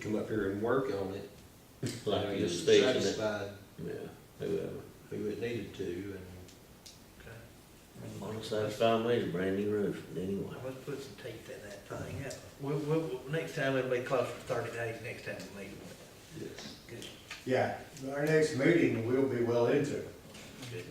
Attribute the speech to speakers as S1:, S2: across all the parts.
S1: come up here and work on it.
S2: like
S1: you know,
S2: you
S1: you're
S2: station it,
S1: Satisfied
S2: yeah, whoever.
S1: who it needed to, and
S2: Well, satisfy me is a brand new roof, but anyway.
S3: Let's put some teeth in that thing, yeah. We'll, we'll, we'll- next time it'll be closer to thirty days, next time we meet.
S1: yes.
S3: Good,
S4: Yeah, our next meeting, we'll be well into it.
S3: good.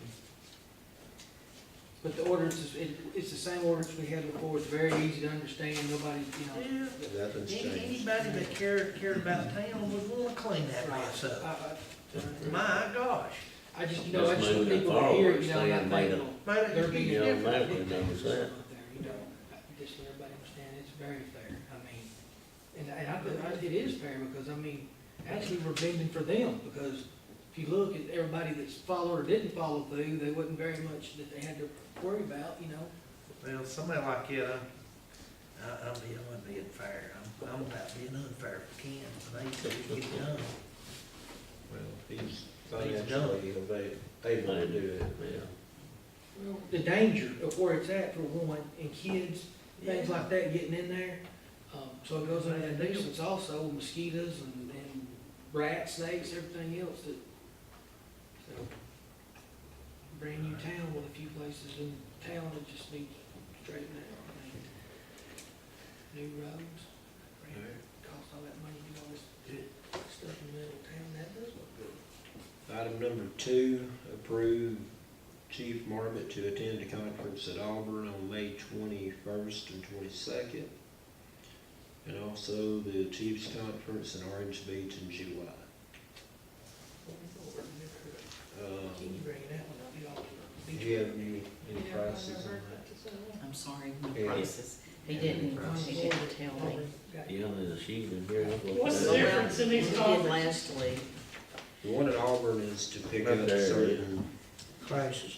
S5: But the ordinance is, it, it's the same ordinance we had before, it's very easy to understand, nobody, you know.
S3: Yeah,
S1: Nothing's
S3: any-
S1: changed.
S3: anybody that cared, cared about town would wanna clean that mess
S5: I-
S3: up.
S5: I-
S3: My gosh,
S5: I just, you know, I just want
S2: Moving
S5: people to hear,
S2: forward,
S5: you know, that
S2: stand by
S5: they
S2: the-
S5: don't,
S3: made
S5: they're
S3: it
S5: being.
S3: huge
S2: Yeah,
S5: different.
S2: man.
S3: difference.
S2: automatically knows that.
S5: You know, I- just so everybody understand, it's very fair, I mean, and, and I, I, it is fair because, I mean, actually, we're bending for them, because if you look at everybody that's followed or didn't follow through, they wasn't very much that they had to worry about, you know.
S3: Well, somebody like you, I'm, I- I'm being, I'm being fair, I'm, I'm about being unfair for Ken, but they could get done.
S1: Well, he's
S3: He's done.
S1: financially ava- able to do it.
S2: Yeah,
S5: Well, The danger of where it's at for one, and kids, things
S3: Yeah.
S5: like that getting in there. Um, so it goes under that nuisance also, mosquitoes and, and rats, snakes, everything else that, so. Brand new town, with a few places in town that just need straightened out. I mean, New roads, brand- cost all that money, do all this stuff in the middle of town, that does look good.
S1: Item number two, approve Chief Marmot to attend a conference at Auburn on May twenty-first and twenty-second. And also the Chiefs Conference in Orange Beach in July.
S5: Can you
S1: Um,
S5: bring it out when I'll be off to the
S1: do
S5: beach?
S1: you have any, any prices on that?
S6: I'm sorry, no
S1: Yeah.
S6: prices. He
S1: Yeah.
S6: didn't, he didn't tell me.
S5: Got
S2: yeah, there's a sheet in here. I'll look
S7: What's
S2: it
S7: the
S2: up.
S7: difference? in these
S6: He did
S7: conferences?
S6: last week.
S1: The one at Auburn is to pick
S2: Right
S1: up
S2: there, yeah.
S1: certain
S3: Crisis.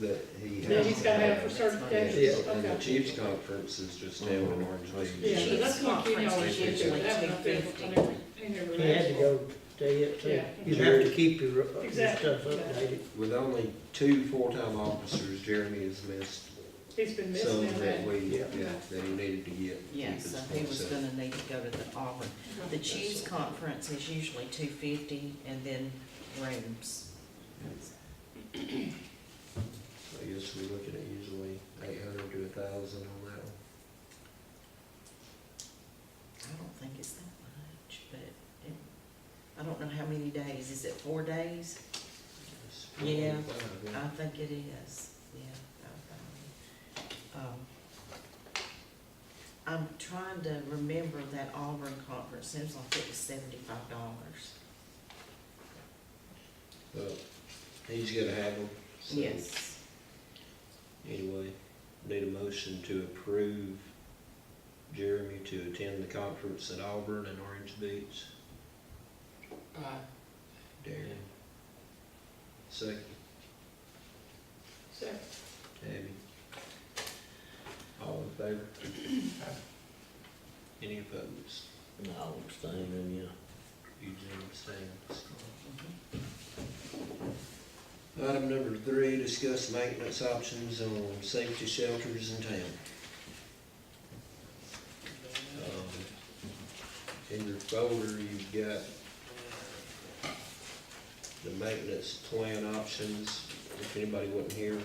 S1: that he
S7: That he's
S1: has.
S7: gotta have for
S6: Next
S7: certifications,
S1: Yeah, and the
S7: okay.
S1: Chiefs Conference is just down in Orange Beach.
S2: Yeah.
S7: Yeah, that's what we always get to, that would be, I never, I never.
S8: You had to go stay up
S7: Yeah.
S8: there. You have to keep your, uh, your
S7: Exactly.
S8: stuff updated.
S1: With only two full-time officers, Jeremy has missed
S7: He's been
S1: some
S7: missing
S1: that
S7: that.
S1: we, yeah, that he needed to get. to keep
S6: Yeah,
S1: his
S6: so he was
S1: full set.
S6: gonna need to go to the Auburn. The Chiefs Conference is usually two fifty and then rooms.
S1: I guess we're looking at usually eight hundred to a thousand on that one.
S6: I don't think it's that much, but it, I don't know how many days. Is it four days?
S1: It's
S6: Yeah.
S1: 4.5, yeah.
S6: I think it is, yeah. I- I- um, I'm trying to remember that Auburn conference, seems like it was seventy-five dollars.
S1: But he's gonna have them. so
S6: Yes.
S1: Anyway, need a motion to approve Jeremy to attend the conference at Auburn and Orange Beach.
S5: it. Uh,
S1: Darren. Second,
S7: So,
S1: Tabby. All in favor? Any opposed?
S2: I'll abstain then, yeah.
S1: Eugene abstains. Item number three, discuss maintenance options on safety shelters in town. Um, In your folder, you've got the maintenance plan options, if anybody wasn't here,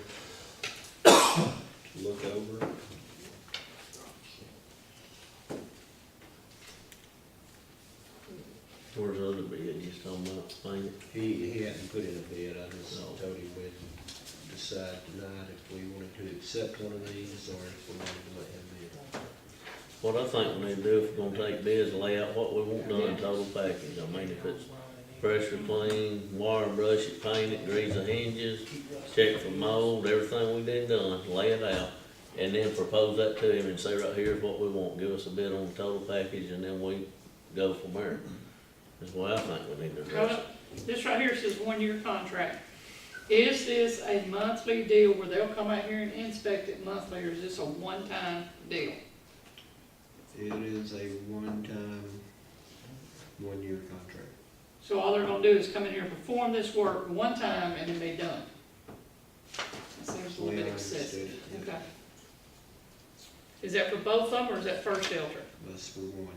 S1: to look over.
S2: Where's the other bid you talking about, thing?
S1: He, he hadn't put in a bid, I just
S2: No.
S1: told him we'd decide tonight if we wanted to accept one of these or if we wanted to let him bid.
S2: What I think we need to do if we're gonna take bids, lay out what we want done, total package. I mean, if it's pressure clean, wire brush it, paint it, grease the hinges, check for mold, everything we did done, lay it out. And then propose that to him and say, right here's what we want, give us a bid on the total package, and then we go from there. That's what I think we need to address. it.
S7: uh, this right here says one-year contract. Is this a monthly deal where they'll come out here and inspect it monthly, or is this a one-time deal?
S1: It is a one-time, one-year contract.
S7: So all they're gonna do is come in here and perform this work one time and then they done. That seems a little bit
S1: Yeah, I understood
S7: excessive,
S1: it, yeah.
S7: okay. Is that for both of them, or is that first shelter?
S1: That's for one.